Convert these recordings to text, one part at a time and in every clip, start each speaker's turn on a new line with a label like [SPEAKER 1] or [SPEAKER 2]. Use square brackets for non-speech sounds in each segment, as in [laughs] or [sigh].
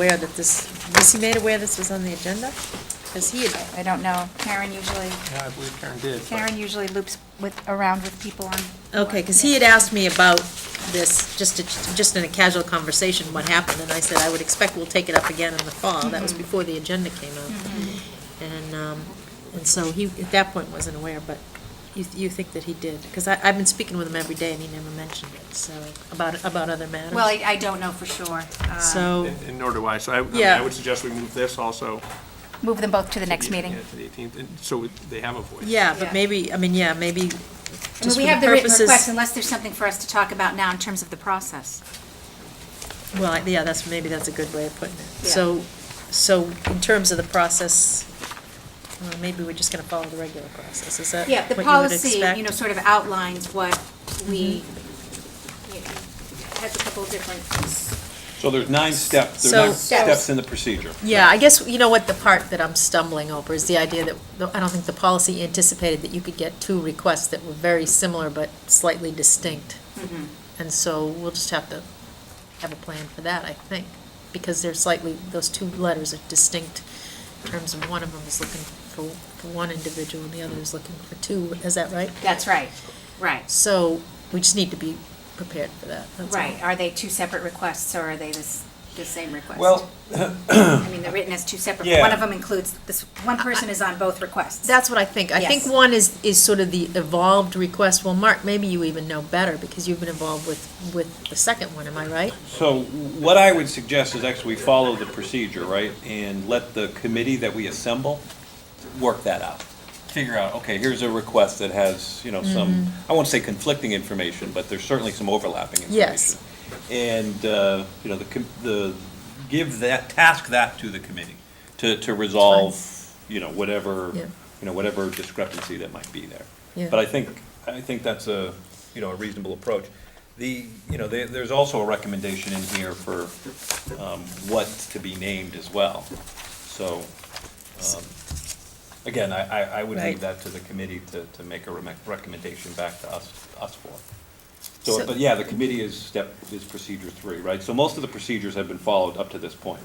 [SPEAKER 1] aware that this, was he made aware this was on the agenda? Because he had,
[SPEAKER 2] I don't know. Karen usually,
[SPEAKER 3] Yeah, I believe Karen did. but-
[SPEAKER 2] Karen usually loops with, around with people on.
[SPEAKER 1] okay, because he had asked me about this, just, to- just in a casual conversation, what happened, and I said, I would expect we'll take it up again in the fall. That was before the agenda came out. And, um, and so he, at that point, wasn't aware, but you, you think that he did? Because I, I've been speaking with him every day, and he never mentioned it, so, about, about other matters.
[SPEAKER 2] Well, I, I don't know for sure. Um,
[SPEAKER 1] So.
[SPEAKER 3] And and nor do I, so I, I mean,
[SPEAKER 1] Yeah.
[SPEAKER 3] I would suggest we move this also.
[SPEAKER 2] Move them both to the
[SPEAKER 3] to
[SPEAKER 2] next
[SPEAKER 3] the-
[SPEAKER 2] meeting.
[SPEAKER 3] yeah, to the 18th, and so they have a voice.
[SPEAKER 1] Yeah, but
[SPEAKER 2] Yeah.
[SPEAKER 1] maybe, I mean, yeah, maybe,
[SPEAKER 2] I mean,
[SPEAKER 1] just for
[SPEAKER 2] we have
[SPEAKER 1] the
[SPEAKER 2] the written
[SPEAKER 1] purposes.
[SPEAKER 2] request unless there's something for us to talk about now in terms of the process.
[SPEAKER 1] Well, I- yeah, that's, maybe that's a good way of putting it.
[SPEAKER 2] Yeah.
[SPEAKER 1] So, so in terms of the process, well, maybe we're just gonna follow the regular process, is that
[SPEAKER 2] Yeah,
[SPEAKER 1] what you
[SPEAKER 2] the
[SPEAKER 1] would
[SPEAKER 2] policy,
[SPEAKER 1] expect?
[SPEAKER 2] you know, sort of outlines what we,
[SPEAKER 1] Mm-hmm.
[SPEAKER 2] you know, has a couple of different,
[SPEAKER 4] So there's nine steps, there's
[SPEAKER 1] So-
[SPEAKER 4] nine steps in the procedure.
[SPEAKER 1] Yeah, I guess, you know what, the part that I'm stumbling over is the idea that, the- I don't think the policy anticipated that you could get two requests that were very similar but slightly distinct.
[SPEAKER 2] mm-hmm,
[SPEAKER 1] And so we'll just have to have a plan for that, I think, because they're slightly, those two letters are distinct in terms of one of them is looking for, for one individual and the other is looking for two, is that right?
[SPEAKER 2] that's right, right,
[SPEAKER 1] So we just need to be prepared for that, that's all.
[SPEAKER 2] right. Are they two separate requests or are they this, the same request?
[SPEAKER 4] Well,
[SPEAKER 2] I mean, they're written as two separate,
[SPEAKER 4] Yeah.
[SPEAKER 2] one of them includes, this, one person is on both requests.
[SPEAKER 1] That's what I think. I think
[SPEAKER 2] Yes.
[SPEAKER 1] one is, is sort of the evolved request. Well, Mark, maybe you even know better because you've been involved with, with the second one, am I right?
[SPEAKER 4] so what I would suggest is actually we follow the procedure, right? And let the committee that we assemble work that out. Figure out, okay, here's a request that has, you know, some,
[SPEAKER 1] Mm-hmm.
[SPEAKER 4] I won't say conflicting information, but there's certainly some overlapping information.
[SPEAKER 1] Yes.
[SPEAKER 4] And, uh, you know, the, com- the, give that, task that to the committee to, to resolve, you know, whatever,
[SPEAKER 1] Yeah.
[SPEAKER 4] you know, whatever discrepancy that might be there.
[SPEAKER 1] Yeah.
[SPEAKER 4] But I think, I think that's a, you know, a reasonable approach. The, you know, there, there's also a recommendation in here for, um, what to be named as well. So, um, again, I, I, I would
[SPEAKER 1] Right.
[SPEAKER 4] leave that to the committee to, to make a rec- recommendation back to us, us for.
[SPEAKER 1] So-
[SPEAKER 4] So, but yeah, the committee is step, is procedure three, right? So most of the procedures have been followed up to this point.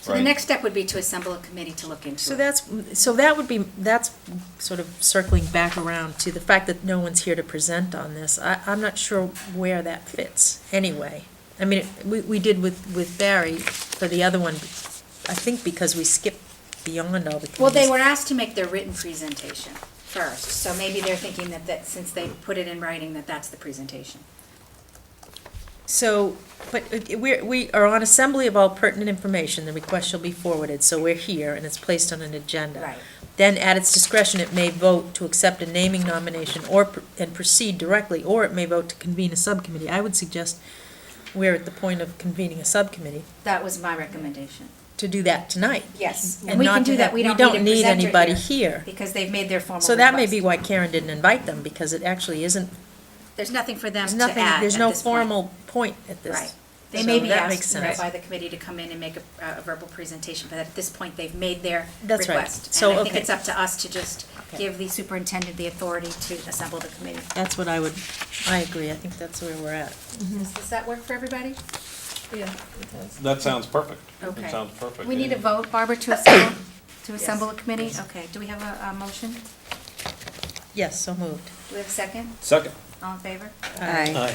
[SPEAKER 2] So the
[SPEAKER 4] right?
[SPEAKER 2] next step would be to assemble a committee to look into it.
[SPEAKER 1] So that's, so that would be, that's sort of circling back around to the fact that no one's here to present on this. I, I'm not sure where that fits anyway. I mean, we, we did with, with Barry for the other one, I think because we skipped beyond all the committees.
[SPEAKER 2] Well, they were asked to make their written presentation first, so maybe they're thinking that, that since they put it in writing, that that's the presentation.
[SPEAKER 1] So, but uh, we're, we are on assembly of all pertinent information, the request shall be forwarded, so we're here, and it's placed on an agenda.
[SPEAKER 2] Right.
[SPEAKER 1] Then, at its discretion, it may vote to accept a naming nomination or, pr- and proceed directly, or it may vote to convene a subcommittee. I would suggest we're at the point of convening a subcommittee
[SPEAKER 2] That was my recommendation.
[SPEAKER 1] to do that tonight.
[SPEAKER 2] Yes,
[SPEAKER 1] And
[SPEAKER 2] and we
[SPEAKER 1] not
[SPEAKER 2] can
[SPEAKER 1] to
[SPEAKER 2] do that,
[SPEAKER 1] have-
[SPEAKER 2] we
[SPEAKER 1] we
[SPEAKER 2] don't
[SPEAKER 1] don't
[SPEAKER 2] need a
[SPEAKER 1] need
[SPEAKER 2] presenter
[SPEAKER 1] anybody here.
[SPEAKER 2] Because they've made their formal request.
[SPEAKER 1] So that may be why Karen didn't invite them, because it actually isn't,
[SPEAKER 2] There's nothing for them
[SPEAKER 1] there's
[SPEAKER 2] to
[SPEAKER 1] nothing,
[SPEAKER 2] add
[SPEAKER 1] there's
[SPEAKER 2] at
[SPEAKER 1] no
[SPEAKER 2] this point.
[SPEAKER 1] formal point at this.
[SPEAKER 2] Right. They may
[SPEAKER 1] So
[SPEAKER 2] be
[SPEAKER 1] that makes
[SPEAKER 2] asked you know,
[SPEAKER 1] sense.
[SPEAKER 2] by the committee to come in and make a, a verbal presentation, but at this point, they've made their
[SPEAKER 1] That's
[SPEAKER 2] request.
[SPEAKER 1] right. So,
[SPEAKER 2] And I think
[SPEAKER 1] okay.
[SPEAKER 2] it's up to us to just
[SPEAKER 1] Okay.
[SPEAKER 2] give the superintendent the authority to assemble the committee.
[SPEAKER 1] That's what I would, I agree, I think that's where we're at.
[SPEAKER 2] Does does that work for everybody?
[SPEAKER 1] Yeah.
[SPEAKER 4] That sounds perfect.
[SPEAKER 2] Okay.
[SPEAKER 4] That sounds perfect.
[SPEAKER 2] We need a vote, Barbara, to assemble, to assemble a committee? Okay, do we have a, a motion? Do
[SPEAKER 1] Yes, so moved.
[SPEAKER 2] we have a second?
[SPEAKER 4] Second.
[SPEAKER 2] All in favor?
[SPEAKER 4] Aye.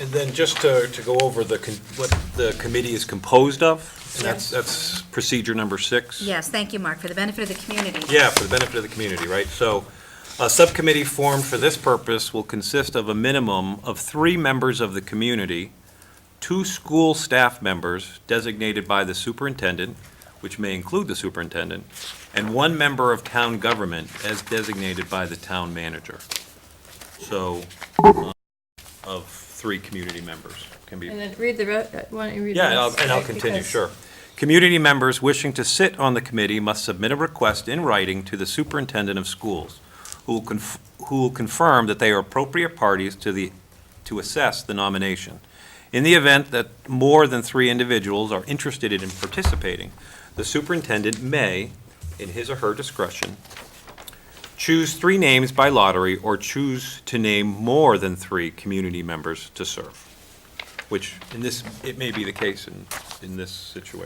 [SPEAKER 5] And then just to, to go over the, con- what the committee is composed of, and that's, that's procedure number six.
[SPEAKER 2] Yes, thank you, Mark, for the benefit of the community.
[SPEAKER 5] Yeah, for the benefit of the community, right? So a subcommittee formed for this purpose will consist of a minimum of three members of the community, two school staff members designated by the superintendent, which may include the superintendent, and one member of town government as designated by the town manager. So, um, of three community members can be.
[SPEAKER 6] And then read the, re- uh, why don't you read the
[SPEAKER 5] Yeah, and I'll,
[SPEAKER 6] rest,
[SPEAKER 5] and
[SPEAKER 6] [laughs]
[SPEAKER 5] I'll
[SPEAKER 6] right,
[SPEAKER 5] continue,
[SPEAKER 6] because-
[SPEAKER 5] sure. Community members wishing to sit on the committee must submit a request in writing to the superintendent of schools, who will, conf- who will confirm that they are appropriate parties to the, to assess the nomination. In the event that more than three individuals are interested in participating, the superintendent may, in his or her discretion, choose three names by lottery or choose to name more than three community members to serve which in this, it may be the case in, in this situation.